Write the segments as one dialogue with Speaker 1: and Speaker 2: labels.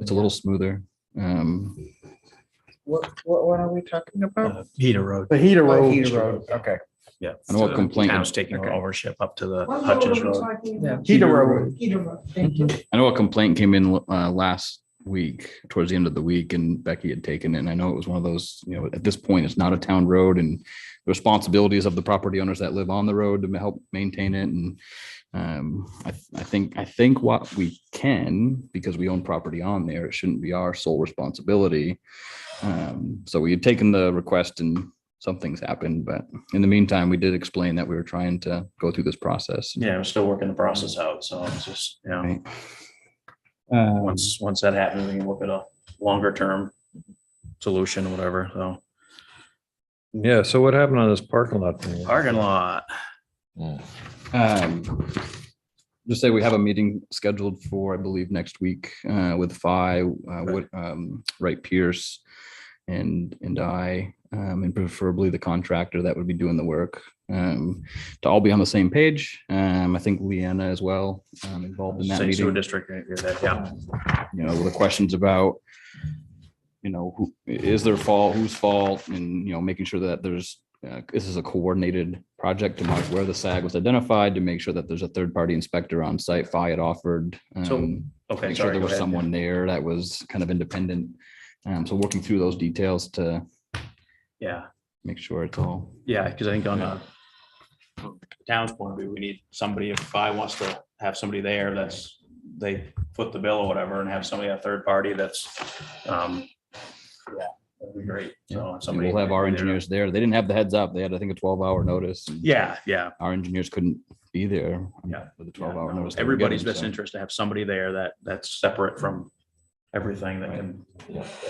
Speaker 1: It's a little smoother. Um,
Speaker 2: What, what, what are we talking about?
Speaker 3: Uh, Peter Road.
Speaker 4: The heater
Speaker 2: Oh,
Speaker 4: road.
Speaker 2: Heater Road, okay.
Speaker 3: Yeah.
Speaker 1: I know what
Speaker 3: So
Speaker 1: complaint-
Speaker 3: Town's taking
Speaker 2: Okay.
Speaker 3: ownership up to the
Speaker 5: What road are
Speaker 3: Hutchins
Speaker 5: we
Speaker 3: Road.
Speaker 5: talking about?
Speaker 4: Heater road.
Speaker 5: Peter Road, thank you.
Speaker 1: I know a complaint came in uh, last week, towards the end of the week, and Becky had taken it. And I know it was one of those, you know, at this point, it's not a town road and the responsibilities of the property owners that live on the road to help maintain it. And um, I, I think, I think what we can, because we own property on there, it shouldn't be our sole responsibility. Um, So we had taken the request and something's happened, but in the meantime, we did explain that we were trying to go through this process.
Speaker 3: Yeah, I'm still working the process out. So it's just, you know,
Speaker 1: Right.
Speaker 4: Um,
Speaker 3: once, once that happens, we can look at a longer term solution, whatever. So
Speaker 6: Yeah, so what happened on this parking lot thing?
Speaker 3: parking lot.
Speaker 1: Um, Just say we have a meeting scheduled for, I believe, next week uh, with Fi, uh, Wood- um, Wright Pierce and, and I, um, and preferably the contractor that would be doing the work. um, To all be on the same page. Um, I think Leanna as well um, involved in that
Speaker 3: Safe
Speaker 1: meeting
Speaker 3: Sewer District. Yeah.
Speaker 1: you know, the questions about, you know, who, is their fault, whose fault, and, you know, making sure that there's, uh, this is a coordinated project to mark where the SAG was identified, to make sure that there's a third-party inspector on site, Fi had offered.
Speaker 3: So,
Speaker 1: um,
Speaker 3: Okay.
Speaker 1: Make sure
Speaker 3: sorry,
Speaker 1: there
Speaker 3: go
Speaker 1: was
Speaker 3: ahead.
Speaker 1: someone there that was kind of independent. Um, so working through those details to
Speaker 3: Yeah.
Speaker 1: make sure it's all.
Speaker 3: Yeah, because I think on a from the town's point of view, we need somebody, if I wants to have somebody there that's, they foot the bill or whatever and have somebody, a third party that's, um, yeah, that'd be great. So
Speaker 1: and
Speaker 3: somebody.
Speaker 1: We'll have our engineers there. They didn't have the heads up. They had, I think, a twelve-hour notice. and
Speaker 3: Yeah, yeah.
Speaker 1: Our engineers couldn't be there. um,
Speaker 3: Yeah.
Speaker 1: With the
Speaker 3: yeah,
Speaker 1: twelve-hour
Speaker 3: no,
Speaker 1: notice. they were
Speaker 3: Everybody's
Speaker 1: given,
Speaker 3: best
Speaker 1: so.
Speaker 3: interest to have somebody there that, that's separate from everything that can,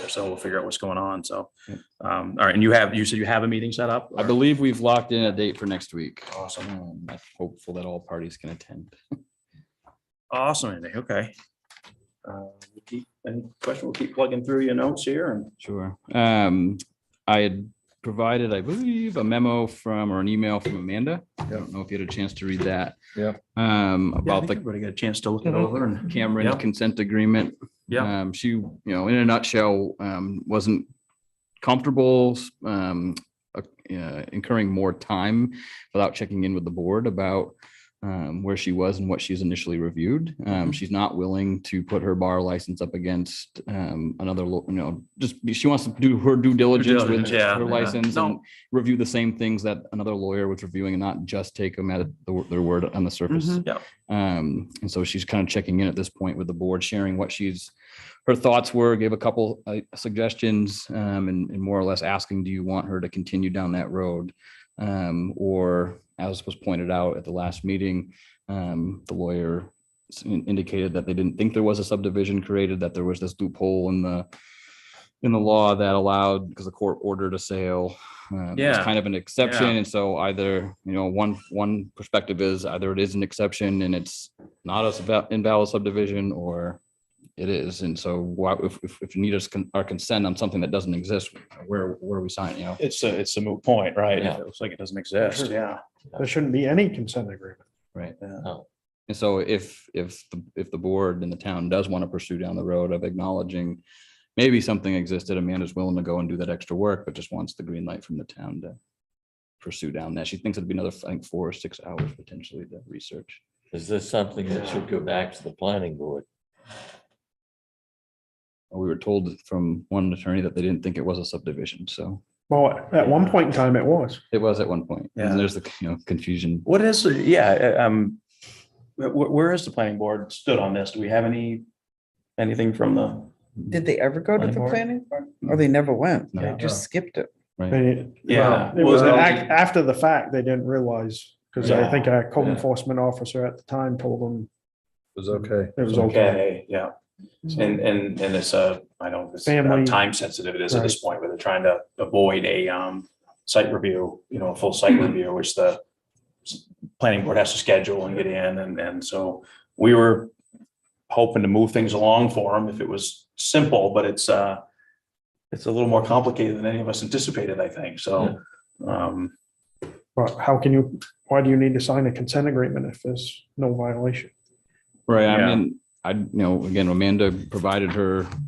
Speaker 3: so we'll figure out what's going on. So,
Speaker 1: Yep.
Speaker 3: um, all right. And you have, you said you have a meeting set up?
Speaker 1: I
Speaker 3: or-
Speaker 1: believe we've locked in a date for next week.
Speaker 3: Awesome.
Speaker 1: Um, I'm hopeful that all parties can attend.
Speaker 3: Awesome, Andy. Okay. Uh, we keep- Any question? We'll keep plugging through your notes here and
Speaker 1: Sure. Um, I had provided, I believe, a memo from or an email from Amanda. I don't know if you had a chance to read that.
Speaker 6: Yeah.
Speaker 1: Um,
Speaker 3: Yeah, I
Speaker 1: about
Speaker 3: think
Speaker 1: the
Speaker 3: everybody got a chance to look it
Speaker 2: Mhm.
Speaker 3: over and.
Speaker 1: Cameron
Speaker 3: Yeah.
Speaker 1: consent agreement.
Speaker 3: Yeah.
Speaker 1: Um, she, you know, in a nutshell, um, wasn't comfortable, um, uh, incurring more time without checking in with the board about um, where she was and what she's initially reviewed.
Speaker 3: Mm-hmm.
Speaker 1: Um, she's not willing to put her bar license up against um, another, lo- you know, just she wants to do her due diligence with
Speaker 3: diligence, yeah,
Speaker 1: her
Speaker 3: yeah.
Speaker 1: license
Speaker 3: No.
Speaker 1: and review the same things that another lawyer was reviewing and not just take them at the- their word on the surface.
Speaker 3: Mhm. Yeah.
Speaker 1: Um, and so she's kind of checking in at this point with the board, sharing what she's, her thoughts were, gave a couple uh, suggestions, um, and, and more or less asking, do you want her to continue down that road? Um, or as was pointed out at the last meeting, um, the lawyer s- in- indicated that they didn't think there was a subdivision created, that there was this loophole in the in the law that allowed, because the court ordered a sale. um, it's
Speaker 3: Yeah.
Speaker 1: Kind of an exception. And so either, you know, one, one perspective is either it is an exception and it's not a sub- invalid subdivision or it is. And so why, if, if, if you need us, con- our consent on something that doesn't exist, where, where are we signing, you know?
Speaker 3: It's a, it's a moot point, right?
Speaker 7: Yeah.
Speaker 3: It looks like it doesn't exist. Yeah.
Speaker 4: There shouldn't be any consent agreement.
Speaker 1: Right.
Speaker 3: Yeah.
Speaker 7: No.
Speaker 1: And so if, if, the- if the board and the town does want to pursue down the road of acknowledging maybe something existed, Amanda's willing to go and do that extra work, but just wants the green light from the town to pursue down that. She thinks it'd be another, I think, four or six hours potentially to research.
Speaker 7: Is this something that should go back to the planning board?
Speaker 1: Uh, We were told from one attorney that they didn't think it was a subdivision, so
Speaker 4: Well, at one point in time, it was.
Speaker 1: it was at one point.
Speaker 3: Yeah.
Speaker 1: And there's the, you know, confusion.
Speaker 3: What is, the- yeah, uh, um, wh- wh- where is the planning board stood on this? Do we have any, anything from the?
Speaker 2: Did they ever go to the
Speaker 3: Planning board?
Speaker 2: planning board? Or they never went?
Speaker 1: No.
Speaker 2: They just skipped it.
Speaker 4: They-
Speaker 3: Yeah.
Speaker 4: It was,
Speaker 3: Well-
Speaker 4: ac- after the fact, they didn't realize, because I
Speaker 3: Yeah.
Speaker 4: think our code
Speaker 7: Yeah.
Speaker 4: enforcement officer at the time told them
Speaker 6: Was okay.
Speaker 4: it was okay.
Speaker 3: Yeah.
Speaker 2: Hmm.
Speaker 3: And, and, and it's a, I don't, it's how
Speaker 4: Family.
Speaker 3: time sensitive it is at this point, where they're trying to avoid a, um, site review, you know, a full site review, which the s- planning board has to schedule and get in. And, and so we were hoping to move things along for them if it was simple, but it's, uh, it's a little more complicated than any of us anticipated, I think. So, um,
Speaker 4: But how can you, why do you need to sign a consent agreement if there's no violation?
Speaker 1: Right, I
Speaker 3: Yeah.
Speaker 1: mean, I, you know, again, Amanda provided her